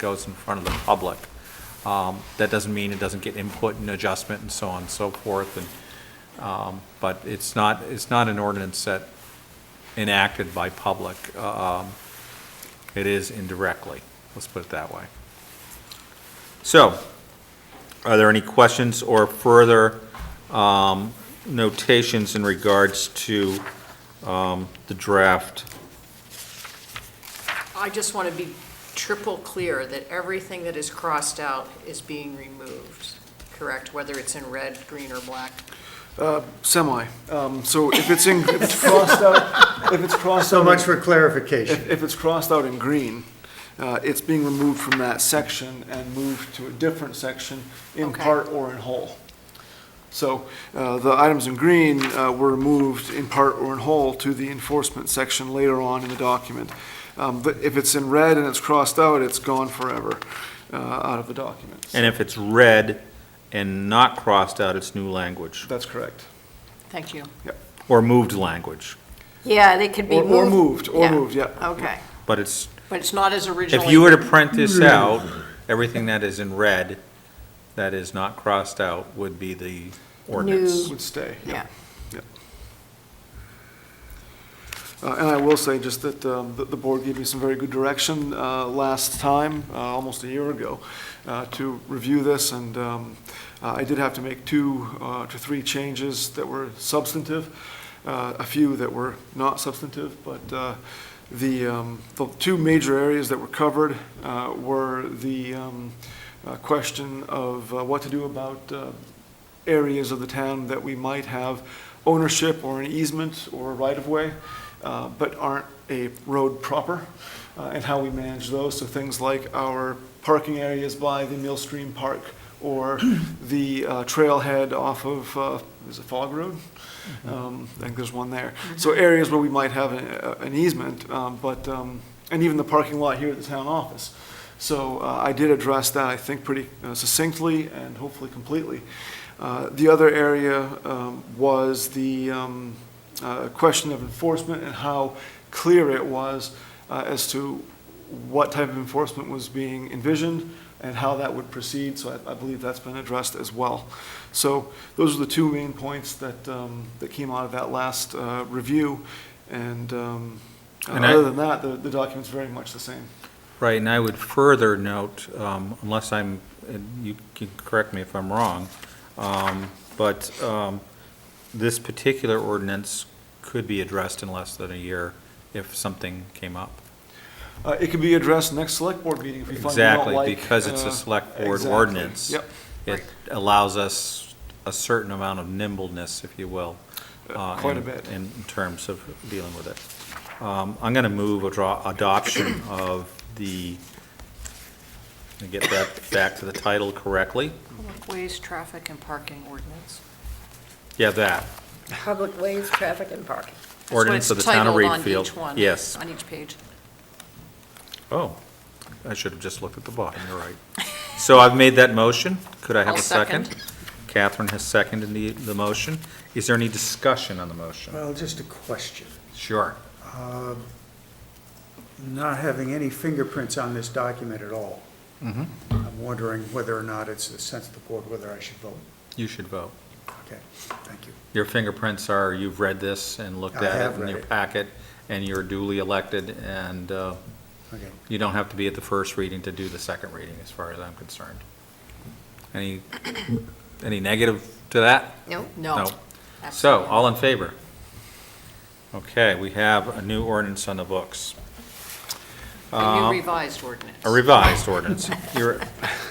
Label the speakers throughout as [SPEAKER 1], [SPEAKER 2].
[SPEAKER 1] goes in front of the public. Um, That doesn't mean it doesn't get input and adjustment and so on and so forth, and, um, but it's not, it's not an ordinance that enacted by public. Um, It is indirectly, let's put it that way. So, are there any questions or further um, notations in regards to um, the draft?
[SPEAKER 2] I just want to be triple clear that everything that is crossed out is being removed, correct? Whether it's in red, green, or black.
[SPEAKER 3] Semi. Um, So if it's in, if it's crossed out, if it's crossed out.
[SPEAKER 4] So
[SPEAKER 3] in-
[SPEAKER 4] much for clarification.
[SPEAKER 3] If if it's crossed out in green, uh, it's being removed from that section and moved to a different section in
[SPEAKER 2] Okay.
[SPEAKER 3] part or in whole. So uh, the items in green uh, were removed in part or in whole to the enforcement section later on in the document. Um, But if it's in red and it's crossed out, it's gone forever uh, out of the document.
[SPEAKER 1] And if it's red and not crossed out, it's new language,
[SPEAKER 3] That's correct.
[SPEAKER 2] Thank you.
[SPEAKER 1] or moved language,
[SPEAKER 5] Yeah, they could be
[SPEAKER 3] Or-
[SPEAKER 5] moved.
[SPEAKER 3] or moved, or
[SPEAKER 5] Yeah.
[SPEAKER 3] moved, yeah.
[SPEAKER 5] Okay.
[SPEAKER 1] but it's,
[SPEAKER 2] But it's not as originally.
[SPEAKER 1] if you were to print this out, everything that is in red that is not crossed out would be the ordinance.
[SPEAKER 5] New.
[SPEAKER 3] Would stay.
[SPEAKER 5] Yeah.
[SPEAKER 3] Uh, And I will say just that um, the the board gave me some very good direction uh, last time, uh, almost a year ago, uh, to review this, and um, uh, I did have to make two uh, to three changes that were substantive, uh, a few that were not substantive, but uh, the, um, the two major areas that were covered uh, were the um, uh, question of uh, what to do about uh, areas of the town that we might have ownership or an easement or a right-of-way, uh, but aren't a road proper, uh, and how we manage those. So things like our parking areas by the Millstream Park or the uh, trailhead off of, uh, is it Fog Road? Um, I think there's one there. So areas where we might have an uh, an easement, um, but, um, and even the parking lot here at the town office. So uh, I did address that, I think, pretty uh, succinctly and hopefully completely. Uh, The other area um, was the um, uh, question of enforcement and how clear it was uh, as to what type of enforcement was being envisioned and how that would proceed, so I- I believe that's been addressed as well. So those are the two main points that, um, that came out of that last uh, review, and um,
[SPEAKER 1] And I-
[SPEAKER 3] other than that, the- the document's very much the same.
[SPEAKER 1] Right, and I would further note, um, unless I'm, and you can correct me if I'm wrong, um, but um, this particular ordinance could be addressed in less than a year if something came up.
[SPEAKER 3] Uh, It could be addressed next select board meeting if we find we don't like.
[SPEAKER 1] Exactly, because it's
[SPEAKER 3] uh,
[SPEAKER 1] a select board
[SPEAKER 3] exactly.
[SPEAKER 1] ordinance.
[SPEAKER 3] Yep.
[SPEAKER 1] It allows us a certain amount of nimbleness, if you will. uh,
[SPEAKER 3] quite a
[SPEAKER 1] in-
[SPEAKER 3] bit.
[SPEAKER 1] In terms of dealing with it. Um, I'm going to move a draw- adoption of the, let me get that back to the title correctly.
[SPEAKER 2] Public ways, traffic, and parking ordinance.
[SPEAKER 1] Yeah, that.
[SPEAKER 5] Public ways, traffic, and parking.
[SPEAKER 2] That's what
[SPEAKER 1] Ordinance
[SPEAKER 2] it's
[SPEAKER 1] of the town of
[SPEAKER 2] titled
[SPEAKER 1] Reedfield.
[SPEAKER 2] on each one.
[SPEAKER 1] Yes.
[SPEAKER 2] On each page.
[SPEAKER 1] Oh, I should have just looked at the bottom, you're right. So I've made that motion. Could I have
[SPEAKER 2] I'll
[SPEAKER 1] a second?
[SPEAKER 2] second.
[SPEAKER 1] Catherine has seconded the, the motion. Is there any discussion on the motion?
[SPEAKER 4] Well, just a question.
[SPEAKER 1] Sure.
[SPEAKER 4] Um, Not having any fingerprints on this document at all, I'm wondering whether or not it's the sense of the board, whether I should vote.
[SPEAKER 1] You should vote.
[SPEAKER 4] Okay, thank you.
[SPEAKER 1] Your fingerprints are, you've read this and looked
[SPEAKER 4] I
[SPEAKER 1] at
[SPEAKER 4] have
[SPEAKER 1] it in
[SPEAKER 4] read
[SPEAKER 1] your
[SPEAKER 4] it.
[SPEAKER 1] packet, and you're duly elected, and uh,
[SPEAKER 4] Okay.
[SPEAKER 1] you don't have to be at the first reading to do the second reading, as far as I'm concerned. Any, any negative to that?
[SPEAKER 5] Nope.
[SPEAKER 2] No.
[SPEAKER 1] So,
[SPEAKER 2] absolutely
[SPEAKER 1] all in favor? Okay, we have a new ordinance on the books,
[SPEAKER 2] not. A new revised ordinance.
[SPEAKER 1] um, a revised ordinance. You're,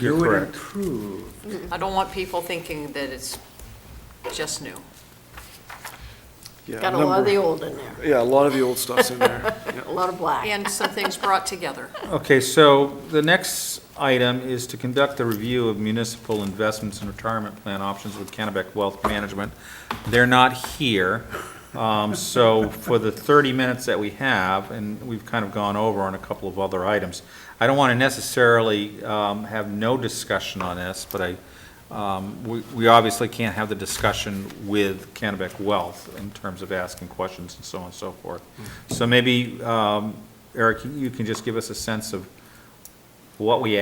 [SPEAKER 1] you're
[SPEAKER 4] You would
[SPEAKER 1] correct.
[SPEAKER 4] improve.
[SPEAKER 2] I don't want people thinking that it's just new.
[SPEAKER 3] Yeah,
[SPEAKER 5] Got a lot of the
[SPEAKER 3] number-
[SPEAKER 5] old in there,
[SPEAKER 3] Yeah, a lot of the old stuff's in there. Yeah.
[SPEAKER 5] a lot of black.
[SPEAKER 2] And some things brought together.
[SPEAKER 1] Okay, so the next item is to conduct a review of municipal investments and retirement plan options with Kennebec Wealth Management. They're not here, um, so for the thirty minutes that we have, and we've kind of gone over on a couple of other items, I don't want to necessarily, um, have no discussion on this, but I, um, we, we obviously can't have the discussion with Kennebec Wealth in terms of asking questions and so on and so forth. So maybe, um, Eric, you can just give us a sense of what we